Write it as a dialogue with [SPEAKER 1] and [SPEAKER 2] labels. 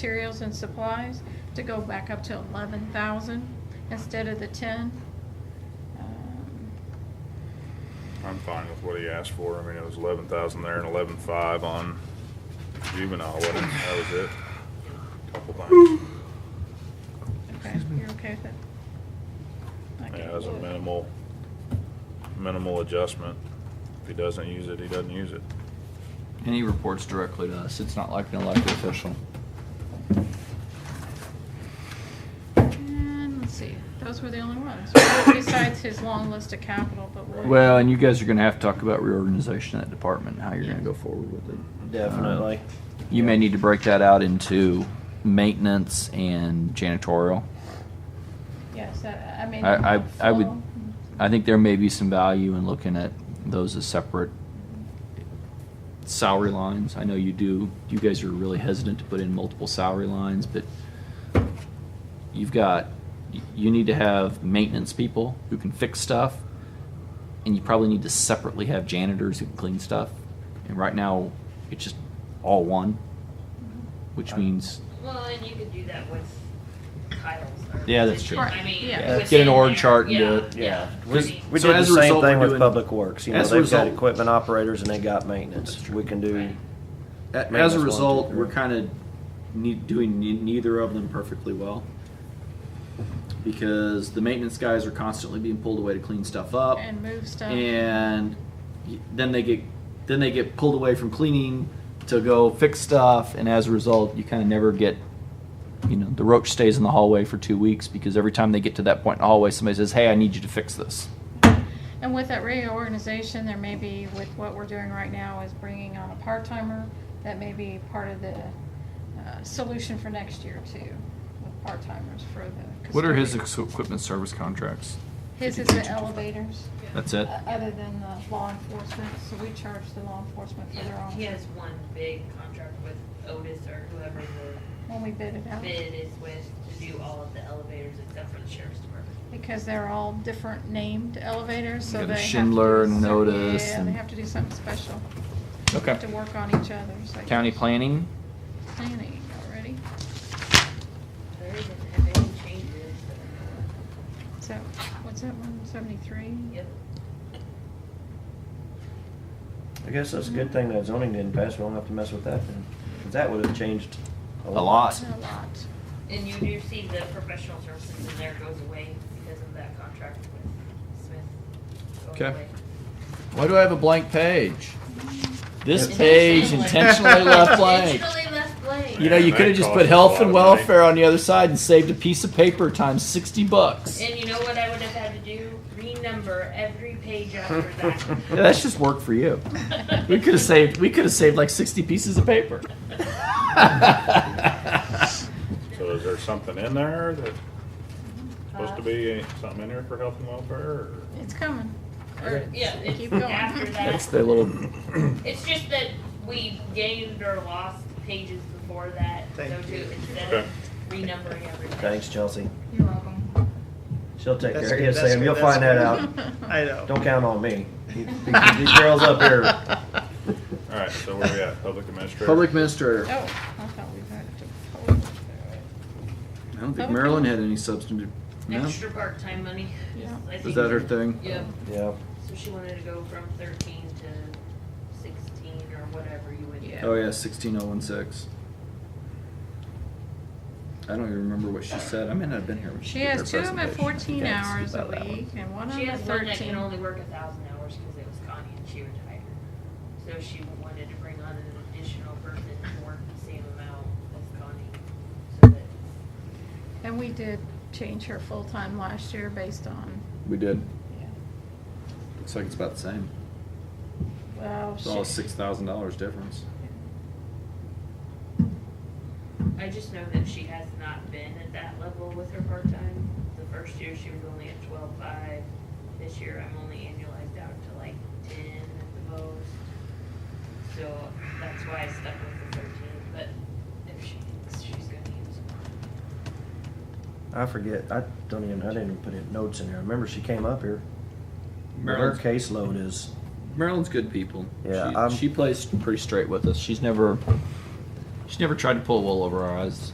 [SPEAKER 1] materials and supplies to go back up to eleven thousand instead of the ten. Um,
[SPEAKER 2] I'm fine with what he asked for. I mean, it was eleven thousand there and eleven five on juvenile, wasn't it? That was it. Couple things.
[SPEAKER 1] Okay, you're okay with it? Okay.
[SPEAKER 2] Yeah, it was a minimal, minimal adjustment. If he doesn't use it, he doesn't use it.
[SPEAKER 3] And he reports directly to us. It's not like an elected official.
[SPEAKER 1] And let's see, those were the only ones, besides his long list of capital, but we'll.
[SPEAKER 3] Well, and you guys are gonna have to talk about reorganization of that department, and how you're gonna go forward with it.
[SPEAKER 4] Definitely.
[SPEAKER 3] Uh, You may need to break that out into maintenance and janitorial.
[SPEAKER 1] Yes, I, I mean.
[SPEAKER 3] I, I, I would,
[SPEAKER 1] full-
[SPEAKER 3] I think there may be some value in looking at those as separate salary lines. I know you do, you guys are really hesitant to put in multiple salary lines, but you've got, you need to have maintenance people who can fix stuff, and you probably need to separately have janitors who can clean stuff. And right now, it's just all one, which means
[SPEAKER 5] Well, and you could do that with titles. or
[SPEAKER 3] Yeah, that's true.
[SPEAKER 5] positions. I
[SPEAKER 1] Right,
[SPEAKER 5] mean,
[SPEAKER 1] yeah.
[SPEAKER 5] within
[SPEAKER 3] Get an org
[SPEAKER 5] there.
[SPEAKER 3] chart and do
[SPEAKER 5] Yeah,
[SPEAKER 3] it.
[SPEAKER 5] Yeah.
[SPEAKER 4] We,
[SPEAKER 5] I mean,
[SPEAKER 4] we
[SPEAKER 3] So
[SPEAKER 4] did the
[SPEAKER 3] as a
[SPEAKER 4] same
[SPEAKER 3] result,
[SPEAKER 4] thing
[SPEAKER 3] we're
[SPEAKER 4] with
[SPEAKER 3] doing-
[SPEAKER 4] public works. You know,
[SPEAKER 3] as a
[SPEAKER 4] they've got
[SPEAKER 3] result-
[SPEAKER 4] equipment operators and they got maintenance. We can do.
[SPEAKER 5] Right.
[SPEAKER 3] A-
[SPEAKER 4] Maintenance
[SPEAKER 3] as a
[SPEAKER 4] one, two,
[SPEAKER 3] result,
[SPEAKER 4] three.
[SPEAKER 3] we're kind of ne- doing ne- neither of them perfectly well because the maintenance guys are constantly being pulled away to clean stuff up,
[SPEAKER 1] And uh, move stuff.
[SPEAKER 3] and y- then they get then they get pulled away from cleaning to go fix stuff, and as a result, you kind of never get. You know, the roach stays in the hallway for two weeks because every time they get to that point in the hallway, somebody says, "Hey, I need you to fix this."
[SPEAKER 1] And with that reorganization, there may be, with what we're doing right now, is bringing on a part-timer. That may be part of the uh, solution for next year too, with part-timers for the. custodian.
[SPEAKER 3] equipment service contracts?
[SPEAKER 1] His is the elevators,
[SPEAKER 3] That's it.
[SPEAKER 1] o- other than the law enforcement, so we charge the law enforcement for their
[SPEAKER 5] yeah, He
[SPEAKER 1] own,
[SPEAKER 5] has one big contract with Otis or whoever the
[SPEAKER 1] when we bid it out.
[SPEAKER 5] bid is with to do all of the elevators except for the sheriff's department.
[SPEAKER 1] Because they're all different named elevators, so
[SPEAKER 3] Got
[SPEAKER 1] they have to. do
[SPEAKER 3] Schindler and
[SPEAKER 1] some-
[SPEAKER 3] Notice
[SPEAKER 1] Yeah, they
[SPEAKER 3] and-
[SPEAKER 1] have to do something special.
[SPEAKER 3] Okay.
[SPEAKER 1] To work on each other's. I
[SPEAKER 3] County
[SPEAKER 1] guess.
[SPEAKER 3] planning.
[SPEAKER 1] Planning already.
[SPEAKER 5] There isn't have any changes. that
[SPEAKER 1] So, what's that one, seventy-three?
[SPEAKER 5] are- Yep.
[SPEAKER 4] I guess that's a good thing that zoning didn't pass. We won't have to mess with that then. 'Cause that would have changed a lot.
[SPEAKER 3] A lot.
[SPEAKER 1] A lot.
[SPEAKER 5] And you do see the professional services in there goes away because of that contract with Smith. going
[SPEAKER 3] Okay.
[SPEAKER 5] away.
[SPEAKER 3] Why do I have a blank page? This
[SPEAKER 5] Intentionally.
[SPEAKER 3] page intentionally left blank.
[SPEAKER 5] Intentionally left blank.
[SPEAKER 3] You know, you
[SPEAKER 2] That
[SPEAKER 3] could have just
[SPEAKER 2] costs
[SPEAKER 3] put
[SPEAKER 2] a
[SPEAKER 3] health
[SPEAKER 2] lot
[SPEAKER 3] and
[SPEAKER 2] of money.
[SPEAKER 3] welfare on the other side and saved a piece of paper times sixty bucks.
[SPEAKER 5] And you know what I would have had to do? Renumber every page after that.
[SPEAKER 3] Yeah, that's just work for you. We could have saved. We could have saved like sixty pieces of paper.
[SPEAKER 2] So is there something in there that's supposed to be, something in there for health and welfare or?
[SPEAKER 1] It's coming.
[SPEAKER 4] Okay.
[SPEAKER 5] Yeah, it's
[SPEAKER 1] Keep going.
[SPEAKER 5] after
[SPEAKER 3] That's
[SPEAKER 5] that.
[SPEAKER 3] the little.
[SPEAKER 5] It's just that we gained or lost pages before that, so
[SPEAKER 6] Thank
[SPEAKER 5] to,
[SPEAKER 6] you.
[SPEAKER 5] instead
[SPEAKER 2] Okay.
[SPEAKER 5] of renumbering everything.
[SPEAKER 4] Thanks, Chelsea.
[SPEAKER 1] You're welcome.
[SPEAKER 4] She'll take
[SPEAKER 6] That's
[SPEAKER 4] care of
[SPEAKER 6] good,
[SPEAKER 4] you,
[SPEAKER 6] that's
[SPEAKER 4] Sam.
[SPEAKER 6] good,
[SPEAKER 4] You'll
[SPEAKER 6] that's
[SPEAKER 4] find that out.
[SPEAKER 1] Oh,
[SPEAKER 6] good. I know.
[SPEAKER 4] Don't count on me. You- These girls up here.
[SPEAKER 2] All right, so where we at? Public administrator?
[SPEAKER 3] Public minister.
[SPEAKER 1] Oh, I thought we had to. vote.
[SPEAKER 3] I don't
[SPEAKER 1] Public-
[SPEAKER 3] think Maryland had any substantive. No,
[SPEAKER 5] Extra part-time money.
[SPEAKER 1] Yeah.
[SPEAKER 5] I
[SPEAKER 3] was
[SPEAKER 5] think-
[SPEAKER 3] that her thing?
[SPEAKER 5] Yeah,
[SPEAKER 4] Yeah.
[SPEAKER 5] so she wanted to go from thirteen to sixteen or whatever you would.
[SPEAKER 1] Yeah.
[SPEAKER 3] Oh yeah, sixteen oh one six. I don't even remember what she said. I may not have been here when she
[SPEAKER 1] She
[SPEAKER 3] did her
[SPEAKER 1] has two of them at
[SPEAKER 3] presentation.
[SPEAKER 1] fourteen
[SPEAKER 3] I can't
[SPEAKER 1] hours
[SPEAKER 3] speak
[SPEAKER 1] a
[SPEAKER 3] about that one.
[SPEAKER 1] week and one of
[SPEAKER 5] She
[SPEAKER 1] them at
[SPEAKER 5] has one that can
[SPEAKER 1] thirteen.
[SPEAKER 5] only work a thousand hours because it was Connie and she retired. So she wanted to bring on an additional person to work the same amount as Connie. So that,
[SPEAKER 1] And we did change her full-time last year based on,
[SPEAKER 3] We did.
[SPEAKER 1] yeah,
[SPEAKER 3] Looks like it's about the same.
[SPEAKER 1] well,
[SPEAKER 3] It's all
[SPEAKER 1] she,
[SPEAKER 3] six thousand dollars difference.
[SPEAKER 5] I just know that she has not been at that level with her part-time. The first year she was only at twelve-five. This year I'm only annualized out to like ten at the most. So that's why I stuck with the thirteen, but if she, she's gonna use more.
[SPEAKER 4] I forget. I don't even. I didn't even put in notes in here. I remember she came up here. But Her
[SPEAKER 3] Maryland's,
[SPEAKER 4] caseload is.
[SPEAKER 3] Maryland's good people.
[SPEAKER 4] Yeah,
[SPEAKER 3] she,
[SPEAKER 4] I'm-
[SPEAKER 3] she plays pretty straight with us. She's never She never tried to pull wool over our eyes.